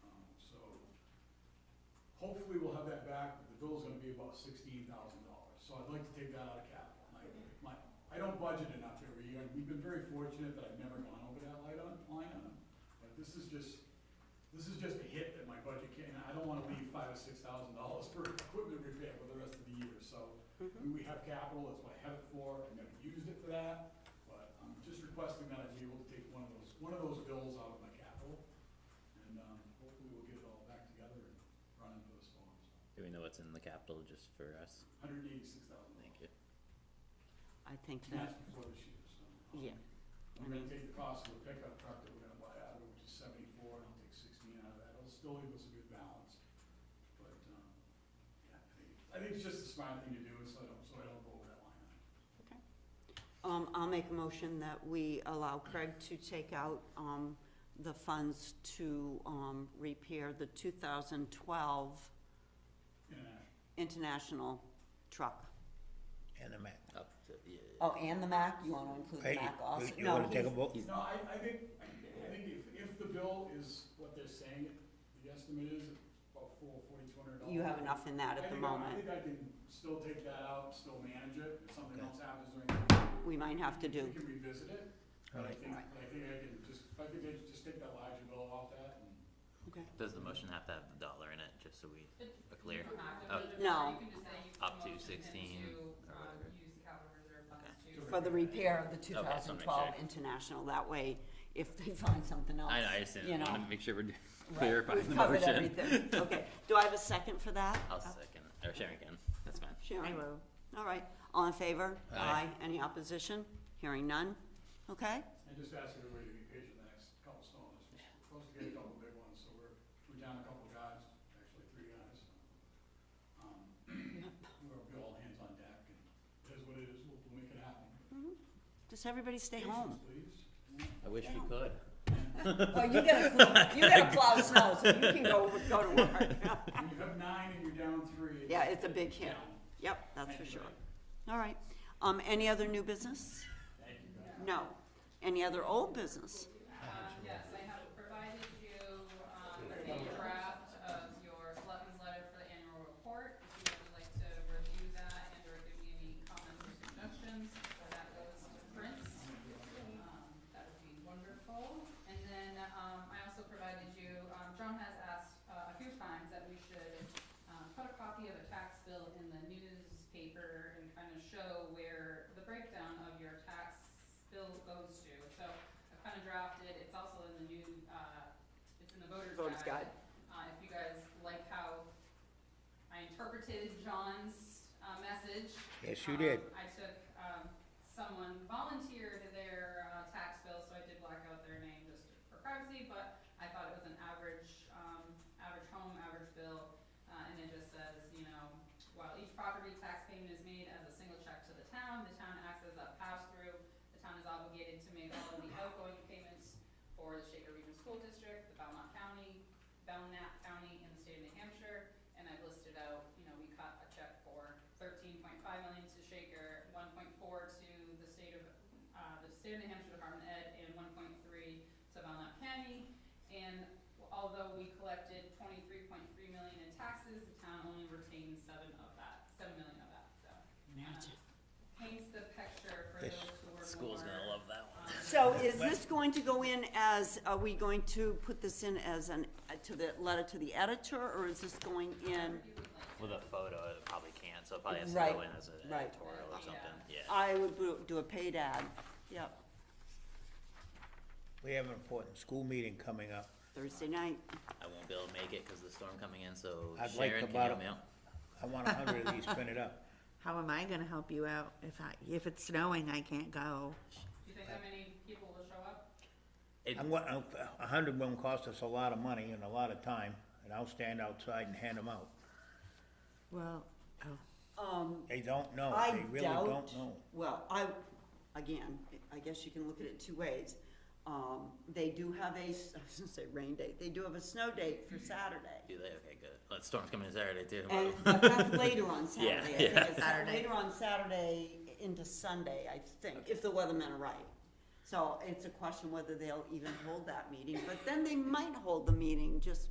Um, Hopefully, we'll have that back, but the bill's gonna be about sixteen thousand dollars, so I'd like to take that out of capital. My, my, I don't budget enough every year, and we've been very fortunate that I've never gone over that light on, line on. But this is just, this is just a hit that my budget can, and I don't wanna leave five or six thousand dollars for equipment repair for the rest of the year, so. we- We have capital, that's what I have it for, I never used it for that, but I'm just requesting that I be able to take one of those, one of those bills out of my capital. And, um, hopefully we'll get it all back together and run into those forms. Do we know what's in the capital just for us? Hundred eighty-six thousand Thank dollars, you. I think and that's that, before this year, so. um, yeah, I I'm gonna mean- take the cost of the pickup truck that we're gonna buy out of, which is seventy-four, and I'll take sixteen out of that, it'll still leave us a good balance. But, um, yeah, I think, I think it's just a smart thing to do, so I don't, so I don't go over that line item. um, I'll make a motion that we allow Craig to take out, um, the funds to, um, repair the two thousand twelve International. international truck. And a Mac. Up to, yeah. Oh, and the Mac, you wanna include the Hey, Mac also? you- You No, wanna take a he's- vote? No, I, I think, I think if, if the bill is what they're saying, the estimate is about four, forty, two hundred dollars. You have enough in that I at the think I- I moment. think I can still take that out, still manage it, if something Okay. else happens during. the year, We might have to do. We can revisit it, but I Alright. think, but I think I can just, if I could take- just take that larger bill off that and. Okay. Does the motion have to have the dollar in it, just so we are clear? Oh. Up, No. Up to 16 or whatever. For the repair of the two so I'll make thousand twelve sure. international, that way, if they find something else, I know, I just you didn't know. wanna make sure we're Right, clarifying we've the covered motion. everything. Okay, do I have a second for that? I'll second, or Sharon can, that's fine. Sharon will. All right, all in favor? Aye. Any opposition? Hearing none? Okay, And just ask everybody to be patient the next couple storms. We're supposed to get a couple big ones, so we're, we're down a couple guys, actually three guys. Um, We'll be all hands on deck and it is what it is. We'll, we'll make it happen. just everybody stay home. Patience, I wish we could. Well, you gotta, plow- you gotta plow snow, so you can go, go to work. please. When you have nine and you're down three. Yeah, it's a big hit. down. Yep, that's Thank for you, sure. buddy. All right, um, any other new business? Thank you, guys. No. Any other old business? um, Yes, I have provided you, um, a draft of your selectmen's letter for the annual report. If you would like to review that and or give me any comments or suggestions, so that goes to Prince. Um, That would be wonderful. And then, um, I also provided you, um, John has asked uh, a few times that we should, um, put a copy of a tax bill in the newspaper and kind of show where the breakdown of your tax bill goes to. So I've kind of drafted, it's also in the new, uh, it's in the voter's guide. Voter's guide. Uh, if you guys like how I interpreted John's, uh, message, Yes, you did. um, I took, um, someone volunteered their, uh, tax bill, so I did black out their name just for privacy, but I thought it was an average, um, average home, average bill, uh, and it just says, you know, while each property tax payment is made as a single check to the town, the town acts as a pass-through. The town is obligated to make all of the outgoing payments for the Shaker Region School District, the Belmont County, Belknap County, and the state of New Hampshire and I've listed out, you know, we cut a check for thirteen point five million to Shaker, one point four to the state of, uh, the state of New Hampshire Department of Ed, and one point three to Belknap County. And although we collected twenty-three point three million in taxes, the town only retained seven of that, seven million of that, so. Imagine. Paints the picture for This those who are more. School's gonna love that one. um, So is this going to go in as, are we going to put this in as an, to the letter to the editor, or is this going in? you would like With a photo, it probably can't, so it probably has to Right, go in as an right. Uh, editorial or something, yeah. I would do- do a paid ad, yep, We have an important school meeting coming up. Thursday night. I won't be able to make it 'cause of the storm coming in, so Sharon, I'd like to can you help bottom- me out? I want a hundred of these printed up. How am I gonna help you out if I, if it's snowing, I can't go? Do you think how many people will show up? It- I'm, wa- I'm- a hundred won't cost us a lot of money and a lot of time, and I'll stand outside and hand them out. Well, oh, Um, They don't know, I Oh, they really doubt- don't know. Well, I, again, I guess you can look at it two ways. Um, they do have a, s- I was gonna say rain date, they do have a snow date for Saturday. Do they, okay, good. Well, the storm's coming in Saturday too. And, Wow. but that's later on Saturday, I Yeah, think yeah. it's Saturday. later on Saturday into Sunday, I think, if the weathermen are right. So it's a question whether they'll even hold that meeting, but then they might hold the meeting just